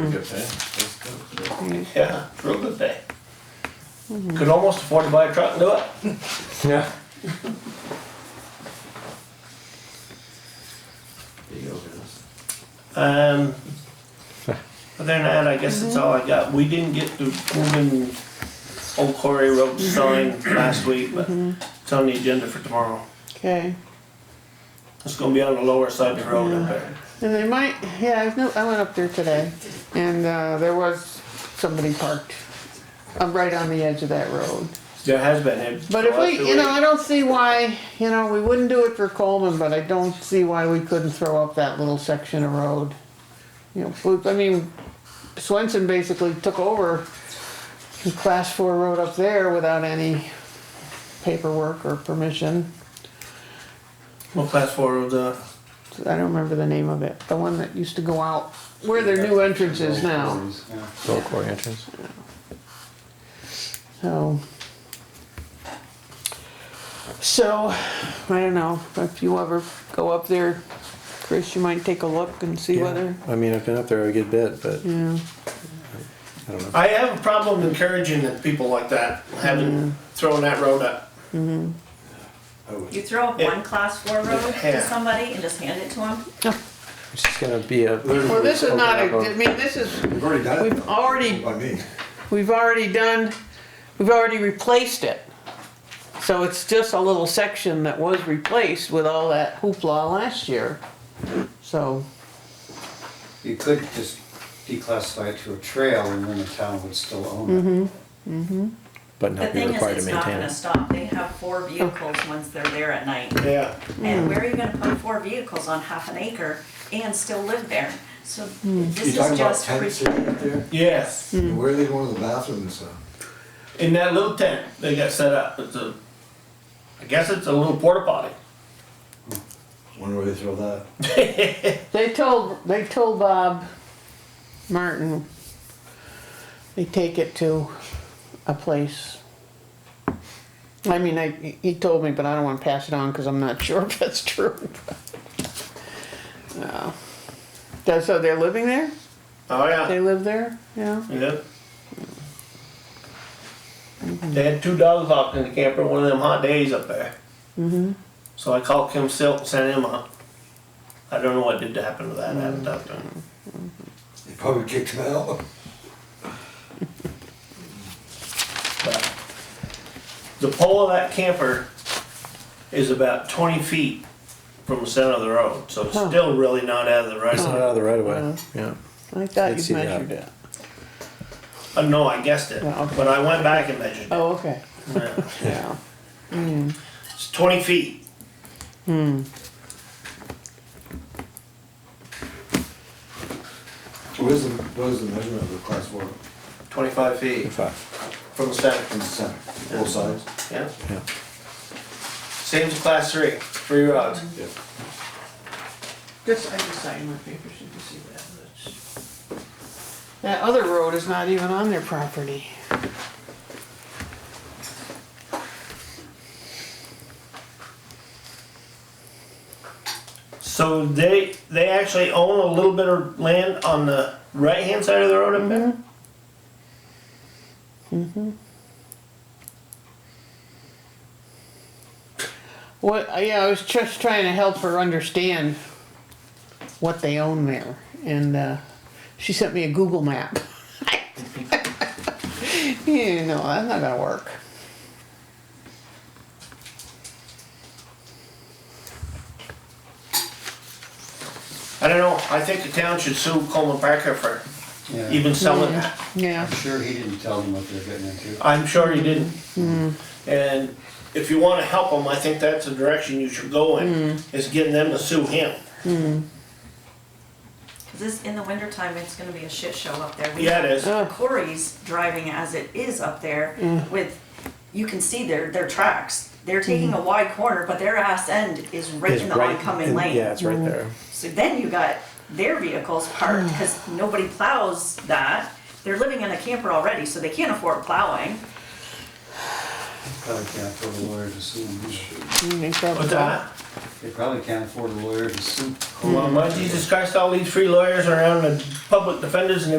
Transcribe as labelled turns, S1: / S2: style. S1: Good pay. That's good.
S2: Yeah, real good pay. Could almost afford to buy a truck and do it.
S3: Yeah.
S1: There you go, Dennis.
S2: Um, other than that, I guess that's all I got. We didn't get the moving Old Quarry Road sign last week, but it's on the agenda for tomorrow.
S4: Okay,
S2: It's gonna be on the lower side of the road up there.
S4: and they might, yeah, I know, I went up there today, and, uh, there was somebody parked, uh, right on the edge of that road.
S2: There has been. it-
S4: But if
S2: the last
S4: we,
S2: two
S4: you know,
S2: weeks.
S4: I don't see why, you know, we wouldn't do it for Coleman, but I don't see why we couldn't throw up that little section of road. You know, we- I mean, Swenson basically took over the class four road up there without any paperwork or permission.
S2: Well, class four roads, uh,
S4: I don't remember the name of it, the one that used to go out where their new entrance is now,
S3: Little quarry entrance.
S4: so. So, I don't know, if you ever go up there, Chris, you might take a look and see whether,
S3: I mean, I've been up there a good bit, but
S4: yeah,
S3: I don't know.
S2: I have a problem encouraging that people like that, having, throwing that road up.
S1: I would.
S5: You throw up
S2: Yeah.
S5: one class four road
S2: Yeah.
S5: to somebody and just hand it to them?
S3: It's just gonna be a.
S4: well, this is not, a- I
S3: Open up
S4: mean, this is,
S1: We've already done it.
S4: We've
S1: though.
S4: already-
S1: By me.
S4: we've already done, we've already replaced it. So it's just a little section that was replaced with all that hoopla last year, so.
S6: You could just declassify it to a trail and then the town would still own it.
S3: a- but
S5: The
S3: not be
S5: thing is,
S3: required to
S5: it's not
S3: maintain
S5: gonna
S3: it.
S5: stop. They have four vehicles once they're there at night.
S2: Yeah.
S5: And where are you gonna put four vehicles on half an acre and still live there? So
S1: You
S5: this
S1: talking
S5: is
S1: about
S5: just. Mm-hmm.
S1: tents sitting up there?
S2: Yes.
S1: Where are they going to the bathrooms, uh?
S2: In that little tent they got set up, it's a, I guess it's a little porta potty.
S1: Wonder where they throw that?
S4: They told, they told Bob Martin, they take it to a place. I mean, I, he told me, but I don't wanna pass it on, cause I'm not sure if that's true. No. That's- So they're living there?
S2: Oh,
S4: They
S2: yeah.
S4: live there? Yeah?
S2: Yeah. They had two dogs out in the camper one of them hot days up there.
S4: Mm-hmm.
S2: So I called Kim Silk and sent him up. I don't know what did happen to that, I
S4: Mm.
S2: haven't talked to him.
S1: They probably kicked him out.
S2: But The pole of that camper is about twenty feet from the center of the road, so it's
S4: Huh.
S2: still really not out of the right
S3: It's
S2: of
S3: not
S2: way.
S3: out of the right of way, yeah.
S4: I Oh. thought
S3: I'd
S4: you
S3: see that.
S4: measured it.
S2: Uh, no, I guessed it,
S4: Yeah, okay.
S2: but I went back and measured it.
S4: Oh, okay,
S2: Yeah.
S4: yeah.
S2: It's twenty feet.
S1: What is the, what is the measurement of the class four
S2: Twenty-five feet
S3: Five,
S2: from the center,
S1: in the center, both sides?
S2: yeah.
S3: yeah.
S2: Same as class three, three rods.
S1: Yeah.
S4: Just, I just signed my papers, you can see that. that's- That other road is not even on their property.
S2: So they, they actually own a little bit of land on the right-hand side of the road up there?
S4: What, uh, yeah, I was just trying to help her understand what they own there, and, uh, she sent me a Google map. You know, that's not gonna work.
S2: I don't know, I think the town should sue Coleman Parker for
S6: Yeah,
S2: even selling
S4: Yeah.
S2: that.
S4: Yeah,
S6: I'm sure he didn't tell them what they're getting into.
S2: I'm sure he didn't. Hmm. And if you wanna help them, I think that's the direction you should go in, is getting them to sue him.
S5: Cause this, in the wintertime, it's gonna be a shit show up there. We
S2: Yeah, it is.
S4: Oh.
S5: have Corey's driving as it is up there with, you can see their, their tracks. They're taking a wide corner, but their ass end is right
S3: It's
S5: in the
S3: right in-
S5: oncoming lane.
S3: Yeah, it's right there.
S5: So then you got their vehicles parked because nobody plows that. They're living in a camper already, so they can't afford plowing.
S6: Probably can't afford a lawyer to sue him. either.
S4: they probably-
S2: What's that?
S6: They probably can't afford a lawyer to sue.
S2: Well, my Jesus Christ, all these free lawyers around the public defenders and